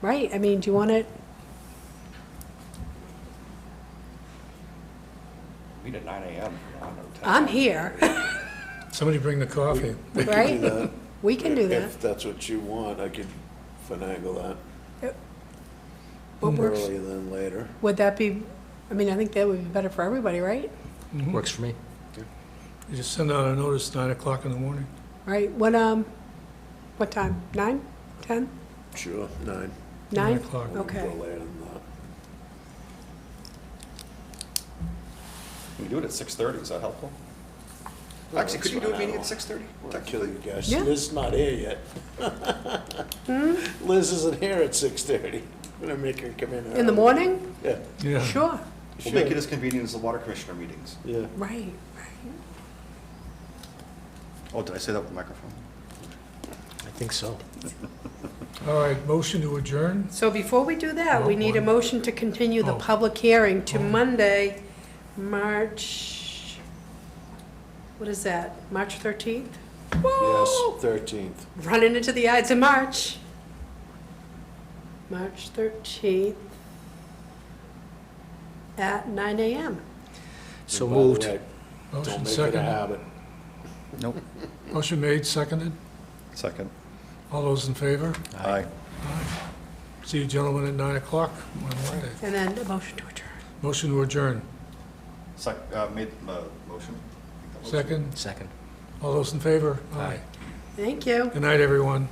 Right, I mean, do you want it, Meet at nine AM. I don't know, ten. I'm here, Somebody bring the coffee. right? that. We can do that. If that's what you want, I could finagle that. What Mm-hmm. works? Earlier than later. Would that be, I mean, I think that would be better for everybody, right? Works for me. You just send out a notice, nine o'clock in the morning. Right, when, um, what time, nine, ten, Sure, nine. nine? o'clock. Okay, Go later than that. Can we do it at six thirty? Is that helpful? Actually, could you do a meeting at six thirty? That kill you guys. Yeah. Liz's not here yet. Liz isn't here at six thirty. I'm gonna make her come in. Hmm? in the early. morning? Yeah, Yeah. Sure, We'll make it as convenient as the water commissioner meetings. yeah. right, right. Oh, did I say that with the microphone? I think so. All right, motion to adjourn? So before we do that, we need a motion to continue the Oh. public hearing to Monday, March, what is that, March thirteenth? Yes, thirteenth. running into the Ides of March. March 13th at 9 a.m. So moved. Motion Don't make it a seconded. habit. Nope. Motion made, seconded. Second. All those in favor? Aye. See you gentlemen at nine o'clock on Monday. And then a motion to adjourn. Motion to adjourn. Sec, uh, made, uh, motion? Make that motion. Second. Second. All those in favor? Aye. Thank you. Good night, everyone.